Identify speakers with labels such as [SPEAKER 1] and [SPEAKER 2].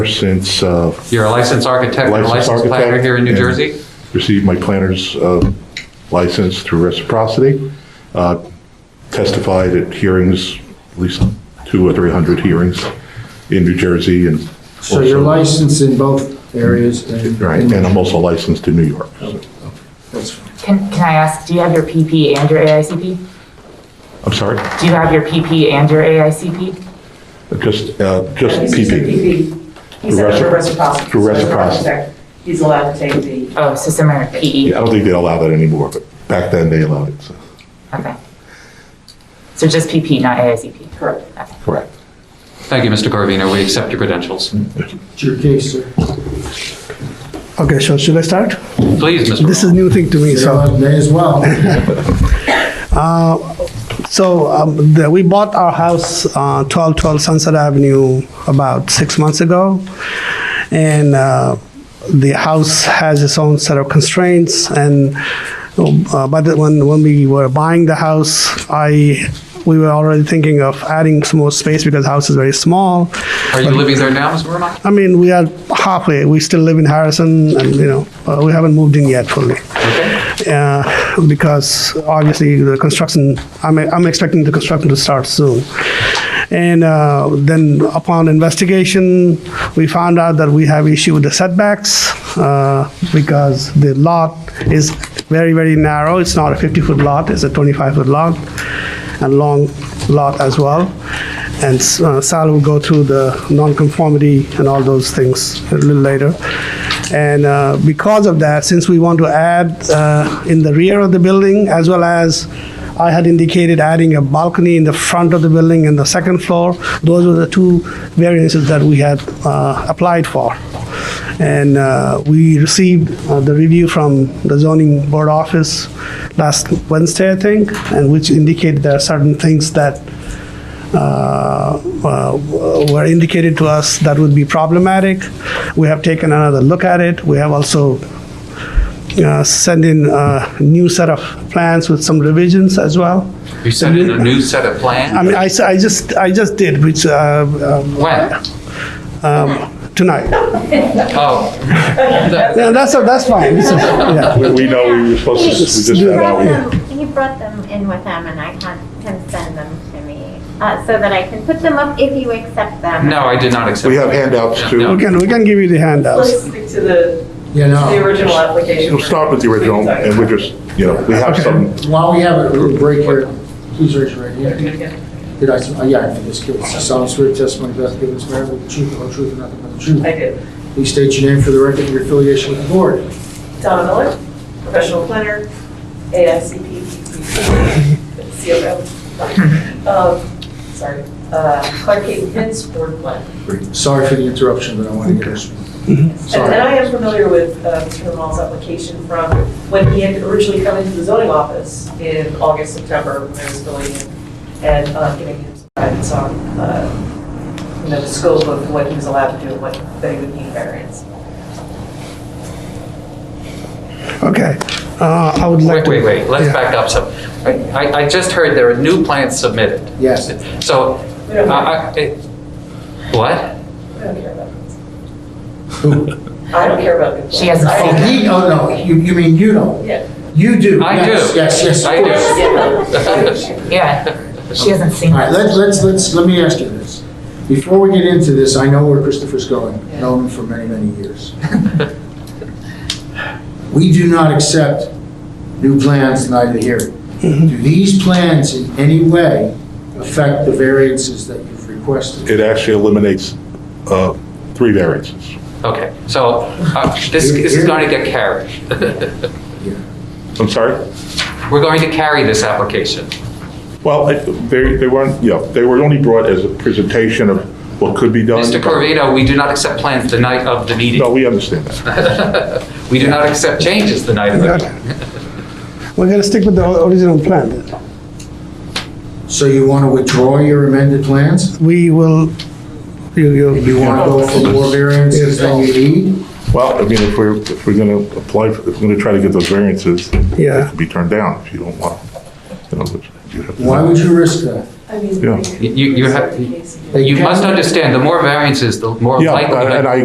[SPEAKER 1] since uh,
[SPEAKER 2] You're a licensed architect and a
[SPEAKER 1] licensed
[SPEAKER 2] licensed planner
[SPEAKER 1] architect.
[SPEAKER 2] here in New
[SPEAKER 1] and
[SPEAKER 2] Jersey?
[SPEAKER 1] Received my planner's uh, license through reciprocity. uh, Testified at hearings, at least two or 300 hearings in New Jersey and.
[SPEAKER 3] So you're
[SPEAKER 1] also-
[SPEAKER 3] licensed in both areas and.
[SPEAKER 1] Right, and I'm also licensed in New York.
[SPEAKER 3] That's fine.
[SPEAKER 4] Can, can I ask, do you have your PP and your AICP?
[SPEAKER 1] I'm sorry,
[SPEAKER 4] Do you have your PP and your AICP?
[SPEAKER 1] just, uh, just
[SPEAKER 5] He's just a
[SPEAKER 1] PP.
[SPEAKER 5] PP. He's a
[SPEAKER 1] Reciproc-
[SPEAKER 5] reciprocity.
[SPEAKER 1] through
[SPEAKER 5] So as an
[SPEAKER 1] reciprocity.
[SPEAKER 5] architect, He's allowed to take the,
[SPEAKER 4] Oh, so similar to
[SPEAKER 1] Yeah,
[SPEAKER 4] PE?
[SPEAKER 1] I don't think they allow that anymore, but back then they allowed it, so.
[SPEAKER 4] Okay. So just PP, not AICP?
[SPEAKER 5] correct.
[SPEAKER 4] Okay.
[SPEAKER 1] Correct.
[SPEAKER 2] Thank you, Mr. Corvino. We accept your credentials.
[SPEAKER 3] It's your case, sir.
[SPEAKER 6] Okay, so should I start?
[SPEAKER 2] Please, Mr.
[SPEAKER 6] This is new thing to me,
[SPEAKER 3] You
[SPEAKER 6] so.
[SPEAKER 3] know, May as well.
[SPEAKER 6] So um, the, we bought our house, uh, 1212 Sunset Avenue, about six months ago. And uh, the house has its own set of constraints. And uh, but when, when we were buying the house, I we were already thinking of adding some more space because the house is very small.
[SPEAKER 2] Are you living there now, Ms. Verma?
[SPEAKER 6] I mean, we are halfway. We still live in Harrison, and you know, uh, we haven't moved in yet fully. Uh, because obviously the construction, I'm, I'm expecting the construction to start soon. And uh, then upon investigation, we found out that we have issue with the setbacks uh, because the lot is very, very narrow. It's not a 50-foot lot, it's a 25-foot lot and long lot as well. And uh, Sal will go through the nonconformity and all those things a little later. And uh, because of that, since we want to add uh, in the rear of the building, as well as I had indicated adding a balcony in the front of the building and the second floor, those were the two variances that we had uh, applied for. And uh, we received uh, the review from the zoning board office last Wednesday, I think, and which indicated there are certain things that uh, were indicated to us that would be problematic. We have taken another look at it. We have also uh, sent in a new set of plans with some revisions as well.
[SPEAKER 2] You sent in a new set of plans?
[SPEAKER 6] I mean, I, s- I just, I just did, which, uh, uh,
[SPEAKER 2] When?
[SPEAKER 6] tonight.
[SPEAKER 2] Oh,
[SPEAKER 6] Yeah, that's, that's fine. It's- yeah.
[SPEAKER 1] We we know we were supposed to, we just
[SPEAKER 7] He
[SPEAKER 1] found
[SPEAKER 7] brought
[SPEAKER 1] out.
[SPEAKER 7] them, he brought them in with him and I had him send them to me, uh, so that I can put them up if you accept them.
[SPEAKER 2] no, I did not accept.
[SPEAKER 1] We have handouts
[SPEAKER 2] No.
[SPEAKER 1] too.
[SPEAKER 6] We can, we can give you the handouts.
[SPEAKER 5] Let's stick to the,
[SPEAKER 3] You
[SPEAKER 5] the
[SPEAKER 3] know,
[SPEAKER 5] original application.
[SPEAKER 1] We'll start with the original and we're just, you know, we have some,
[SPEAKER 3] while we have a little break here, please raise your right hand.
[SPEAKER 5] Okay.
[SPEAKER 3] Did I, uh, yeah, I think this kid, solemn swear testimony about giving this matter with the truth, the whole truth, and nothing but the truth.
[SPEAKER 5] I did.
[SPEAKER 3] Please state your name for the record, and your affiliation with the board.
[SPEAKER 5] Donna Miller, professional planner, AICP, COO. Um, Sorry, Uh, Clark King Pins, board planner.
[SPEAKER 3] Sorry for the interruption, but I want to get this.
[SPEAKER 5] And
[SPEAKER 3] Sorry.
[SPEAKER 5] and I am familiar with uh, Mr. Lamal's application from when he had originally come into the zoning office in August, September, when I was filling in and uh, giving him some guidance on, uh, you know, the scope of what he was allowed to do, and what, that he would need variance.
[SPEAKER 6] Okay. Uh, I would
[SPEAKER 2] Wait,
[SPEAKER 6] like to.
[SPEAKER 2] wait, wait, let's
[SPEAKER 6] Yeah.
[SPEAKER 2] back up some. I, I- I just heard there are new plans submitted.
[SPEAKER 3] Yes.
[SPEAKER 2] So,
[SPEAKER 5] We don't
[SPEAKER 2] uh,
[SPEAKER 5] care,
[SPEAKER 2] I- it- what?
[SPEAKER 5] we don't care about this. I don't care about this.
[SPEAKER 4] She hasn't
[SPEAKER 5] I-
[SPEAKER 3] Oh, he, oh, no, you, you mean you don't?
[SPEAKER 5] Yeah.
[SPEAKER 3] You do.
[SPEAKER 2] I
[SPEAKER 3] Yes,
[SPEAKER 2] do.
[SPEAKER 3] Yes, yes, of
[SPEAKER 2] I do.
[SPEAKER 3] course.
[SPEAKER 5] Yeah.
[SPEAKER 4] Yeah, she hasn't seen
[SPEAKER 3] All right,
[SPEAKER 4] it.
[SPEAKER 3] let's, let's, let's, let me ask you this. Before we get into this, I know where Christopher's going, known him for many, many years. We do not accept new plans tonight of hearing. Do these plans in any way affect the variances that you've requested?
[SPEAKER 1] it actually eliminates uh, three variances.
[SPEAKER 2] Okay, so uh, this this is going to get carried.
[SPEAKER 1] I'm sorry?
[SPEAKER 2] We're going to carry this application.
[SPEAKER 1] Well, I- they, they weren't, you know, they were only brought as a presentation of what could be done.
[SPEAKER 2] Mr. Corvino, we do not accept plans the night of the meeting.
[SPEAKER 1] No, we understand that.
[SPEAKER 2] We do not accept changes the night of the meeting.
[SPEAKER 6] Okay. We're gonna stick with the o- original plan then.
[SPEAKER 3] So you want to withdraw your amended plans?
[SPEAKER 6] We will, you, you.
[SPEAKER 3] You want to go for more variances than you need?
[SPEAKER 1] Well, I mean, if we're, if we're gonna apply, if we're gonna try to get those variances, they
[SPEAKER 6] Yeah.
[SPEAKER 1] could be turned down if you don't want, you know, which you have to-
[SPEAKER 3] Why would you risk that?
[SPEAKER 5] I mean,
[SPEAKER 1] Yeah.
[SPEAKER 5] like,
[SPEAKER 2] You- you- you
[SPEAKER 5] in
[SPEAKER 2] have-
[SPEAKER 5] certain cases.
[SPEAKER 2] You must understand, the more variances, the more
[SPEAKER 1] Yeah,
[SPEAKER 2] likelihood.
[SPEAKER 1] and I